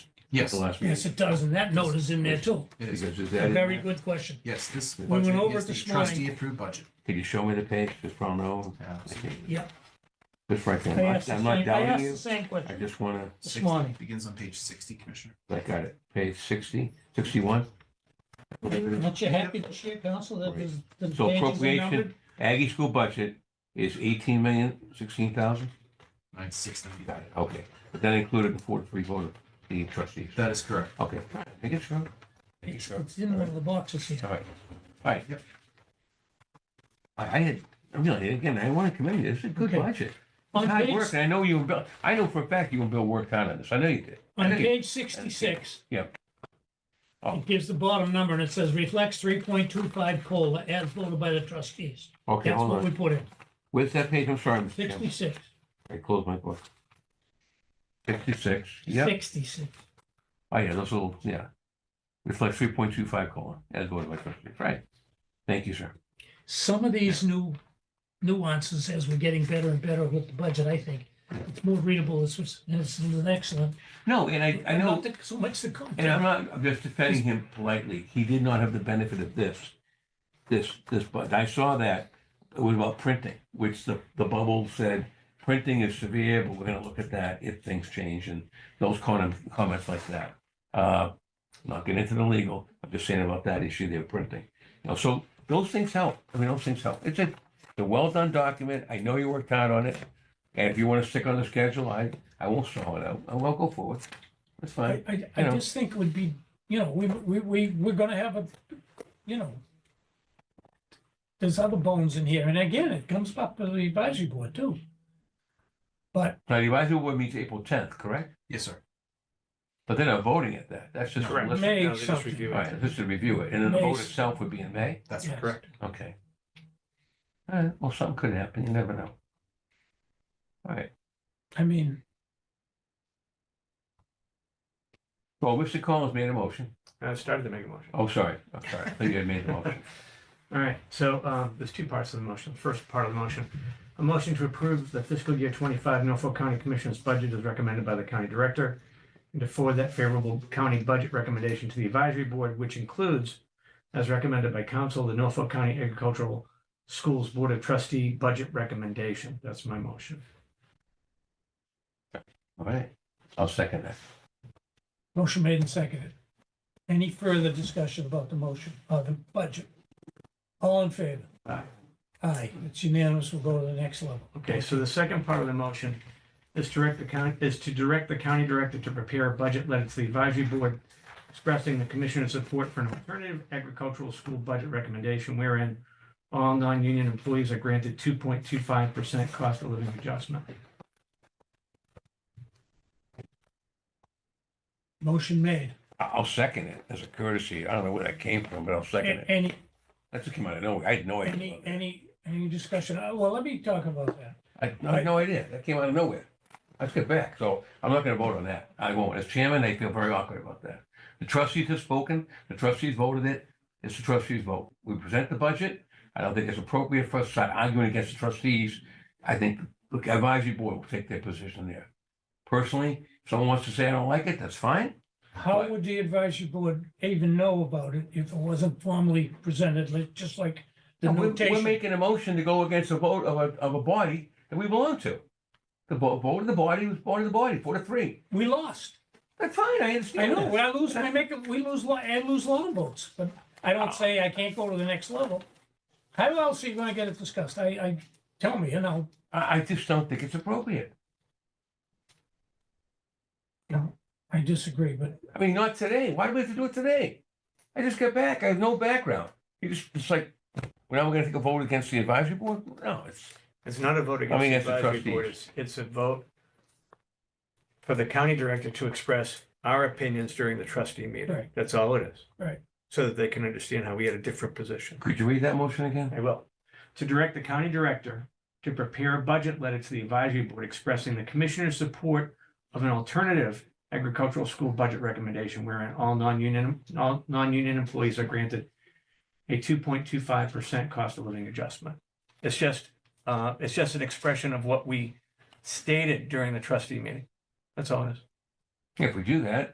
Yes, The it last meeting. Yes, it does, and that note is in there too. is. Because it's A added- very good question. Yes, this We went budget over is it the this morning. trustee approved budget. Could you show me the page, just so I know? I can't- Yeah, Just right I there. I'm asked not- the I'm same, not I doubting asked the you. same I question just want this 60 morning. Begins on page sixty, Commissioner. to, I got it, page 60, 61? Aren't you happy this year, council, that the, the So pages are numbered? appropriation, Aggie school budget is 18 million, 16,000? Nine six ninety. Got it, okay. But that included the 43 vote of the trustees. That is correct. Okay, I guess so. Thank you, It's sir. it's in one of the boxes here. All right, all right. Yep. I, I had, really, again, I want to commend you, this is a good Okay. budget. On It's hard page, work, and I know you and Bill, I know for a fact you and Bill worked hard on this, I know you did. I on know you- page sixty-six. Yeah. Oh. It gives the bottom number and it says reflects three point two five COLA as voted by the trustees. Okay, That's hold what we on. put in, Where's that page? I'm sorry, Mr. Chairman. sixty-six, I closed my book. Sixty-six, yeah, sixty-six. oh yeah, those little, yeah. Reflects three point two five colon, as voted by trustees, right? Thank you, sir. some of these new nuances as we're getting better and better with the budget, I think. It's more readable, it's, it's it's an excellent. No, and I, I Not know, that So much to come. and I'm not, I'm just defending him politely, he did not have the benefit of this. This, this, but I saw that, it was about printing, which the, the bubble said, printing is severe, but we're gonna look at that if things change, and those kind of comments like that. Uh, not getting into the legal, I'm just saying about that issue they're printing. You know, so those things help. I mean, those things help. It's a, it's a well-done document. I know you worked hard on it. And if you want to stick on the schedule, I, I won't stall it out. I will go forward. That's I, fine. I, I you know. just think it would be, you know, we, we, we, we're gonna have a, you know, there's other bones in here, and again, it comes up to the advisory board too. But Now, the advisory board meets April tenth, correct? Yes, sir. But they're not voting at that. That's just. a Correct. list. May Now they just something. review All it. right, just to review it. And then the vote May. itself would be in May? That's Yes. correct. Okay. All right, well, something could happen. You never know. All right. I mean, Well, Mr. Collins made a motion. I started to make a motion. Oh, sorry. I'm sorry. I thought you had made the motion. All right, so uh, there's two parts of the motion. The First part of the motion, a motion to approve the fiscal year 25 Norfolk County Commissioners budget as recommended by the county director, and to forward that favorable county budget recommendation to the advisory board, which includes, as recommended by council, the Norfolk County Agricultural Schools Board of Trustee budget recommendation. That's my motion. All right. I'll second that. motion made and seconded. Any further discussion about the motion, or the budget? All in favor? Aye. Aye, it's unanimous, we'll go to the next level. Okay, so the second part of the motion is direct the county, is to direct the county director to prepare a budget letter to the advisory board expressing the commissioner's support for an alternative agricultural school budget recommendation wherein all non-union employees are granted two point two five percent cost of living adjustment. Motion made. I- I'll second it as a courtesy. I don't know where that came from, but I'll second A- it. Any, That just came out of nowhere. I had no idea. any, any, any discussion? Uh, Well, let me talk about that. I had no- I had no idea. That came out of nowhere. Let's get back. So I'm not going to vote on that. I won't. As chairman, I feel very awkward about that. The trustees have spoken. The trustees voted it. It's the trustees' vote. We present the budget. I don't think it's appropriate for us to start arguing against the trustees. I think the advisory board will take their position there. Personally, if someone wants to say I don't like it, that's fine. How Right. would the advisory board even know about it if it wasn't formally presented, like- just like the And we're, we're notation? making a motion to go against a vote of a, of a body that we belong to. The vo- vote of the body was voted the body, four to three. We lost. That's fine, I I understand know, that. when I lose, I make, it- we lose, lo- I lose long votes, but I don't say I can't go to the next level. How else are you gonna get it discussed? I, I, tell me, and I'll I, I just don't think it's appropriate. I disagree, but I mean, not today. Why do we have to do it today? I just got back. I have no background. You just, it's like, we're not going to take a vote against the advisory board? No, it's, It's not a vote against the against the advisory trustees. board, It's, it's a vote for the county director to express our opinions during the trustee Right. meeting. That's all it is. Right. So that they can understand how we had a different position. could you read that motion again? I will. To direct the county director to prepare a budget letter to the advisory board expressing the commissioner's support of an alternative agricultural school budget recommendation wherein all non-union, all non-union employees are granted a two point two five percent cost of living adjustment. It's just, uh, it's just an expression of what we stated during the trustee meeting. That's all it is. If we do that,